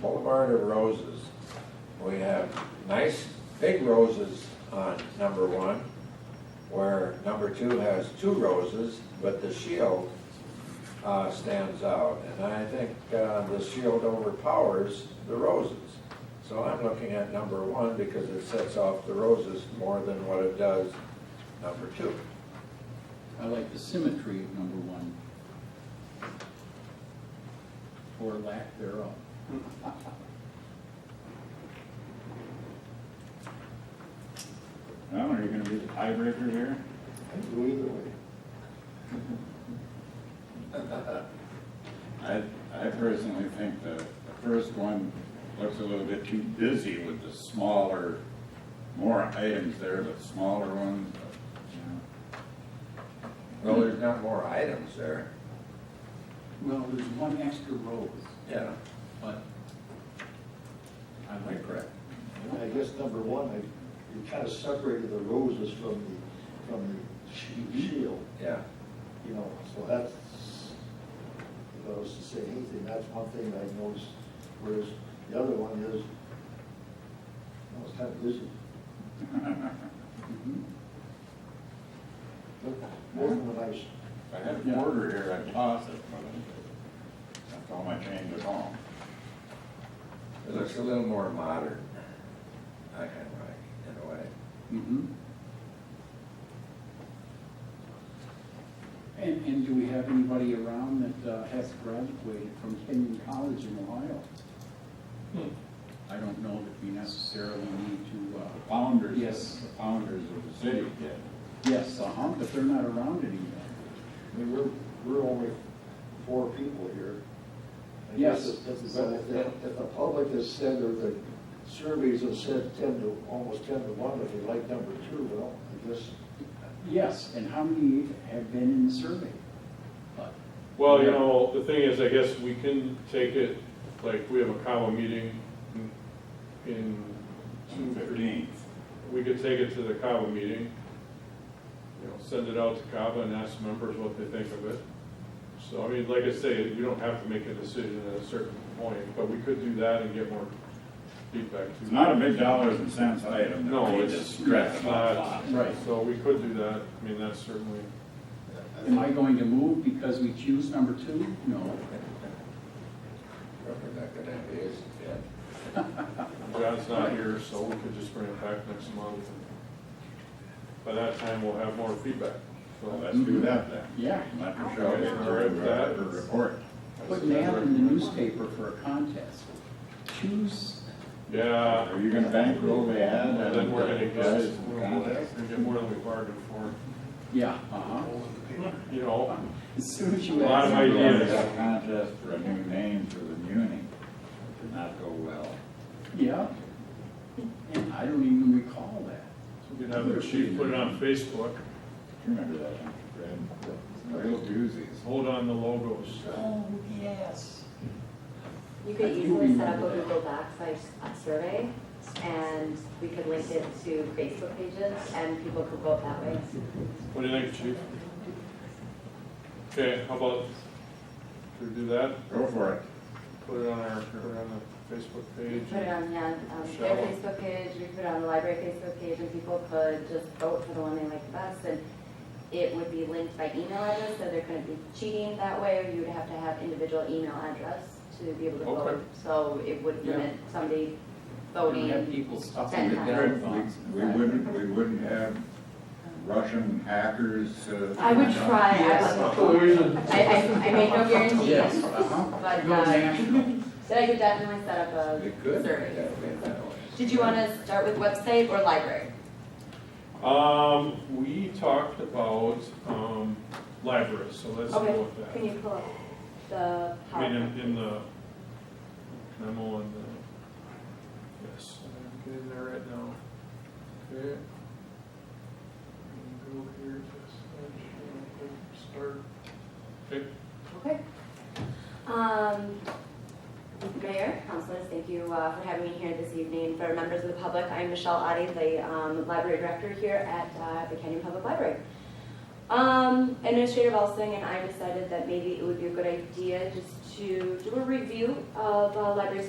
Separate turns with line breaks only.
Boulevard of Roses. We have nice big roses on number one, where number two has two roses, but the shield uh, stands out. And I think uh, the shield overpowers the roses. So I'm looking at number one because it sets off the roses more than what it does number two.
I like the symmetry of number one. Or lack thereof.
Now, are you gonna be the tiebreaker here?
I can go either way.
I, I personally think the, the first one looks a little bit too busy with the smaller, more items there, the smaller ones. you
Well, there's not more items there.
Well, there's one extra rose,
Yeah.
but I like that.
And I guess number one, I, you kind of separated the roses from the, from the shi- shield,
Yeah.
you know, so that's, if I was to say anything, that's one thing that I noticed, whereas the other one is, I was kind of busy.
know.
Mhm.
But Both of them are nice.
If I had a quarter here, I'd toss it, but that's all my change at home.
It looks a little more modern. I kind of like, in a way.
Mhm. And, and do we have anybody around that uh, has graduated from Kenyon College in Ohio? Hmm. I don't know that we necessarily need to,
The
uh,
founders,
Yes.
the founders of the city did.
yes, uh-huh, but they're not around anymore.
I mean, we're, we're only four people here. I guess
Yes.
If, if- if the- if the public has said, or the surveys have said ten to, almost ten to one, if they like number two, well, I guess,
Yes, and how many have been in the survey? But
Well, you know, the thing is, I guess we can take it, like, we have a comma meeting in- in
June
two, three.
fifteenth.
We could take it to the comma meeting, you know, send it out to CABA and ask members what they think of it. So, I mean, like I say, we don't have to make a decision at a certain point, but we could do that and get more feedback. too.
It's not a big dollars and cents item.
No,
We
it's-
just stress
it's
it a
not.
lot.
Right.
So we could do that, I mean, that's certainly,
Am I going to move because we choose number two? No.
Probably not gonna have it, yeah.
John's not here, so we could just bring it back next month. By that time, we'll have more feedback,
Well,
so.
let's do that then.
Yeah.
Let Michelle get her her report.
Put an ad in the newspaper for a contest. Choose,
Yeah,
Are you gonna bankroll the ad?
and then we're gonna get,
Guys,
we're
contest?
gonna get more than we bargained for,
yeah, uh-huh.
you know,
As soon as you
A lot
ask.
of
We're gonna
ideas.
have a Contest for a new name for the muni. It Did not go well.
Yeah. And I don't even recall that.
we can have the chief put it on Facebook,
You remember that, don't you, Fred? Real doozies.
hold on the logos.
Oh, yes.
You could
I do
easily set up
remember
a
that.
Google Docs like a survey, and we could link it to Facebook pages, and people could vote that way.
What do you think, chief? Okay, how about, should we do that?
Go for it.
Put it on our, put it on the Facebook page?
Put it on, yeah, um, their
Sure.
Facebook page, we put it on the library Facebook page, and people could just vote for the one they like the best, and it would be linked by email address, so there couldn't be cheating that way, or you would have to have individual email address to be able to
Okay.
vote. So it would
Yeah.
limit somebody
We have
voting.
people stuffing it
Ten
down box.
We we wouldn't, we wouldn't have Russian hackers. uh,
I would try, I
Yes.
would- I, I, I make no
Yes,
guarantees,
uh-huh.
but,
Go
uh,
national.
but I could definitely set up a
It could,
survey.
yeah, we- that way.
Did you wanna start with website or library?
Um, we talked about, um, libraries, so let's
Okay.
deal with that.
Can you pull up the
I mean, in, in
PowerPoint?
the memo and the, yes, I'm getting there right now. Okay. Go here, just, start. Okay,
Okay. Um, Mayor, councilors, thank you uh, for having me here this evening. For members of the public, I'm Michelle Adi, the um, library director here at uh, the Canyon Public Library. Um, Administrator Elsing and I decided that maybe it would be a good idea just to do a review of uh, library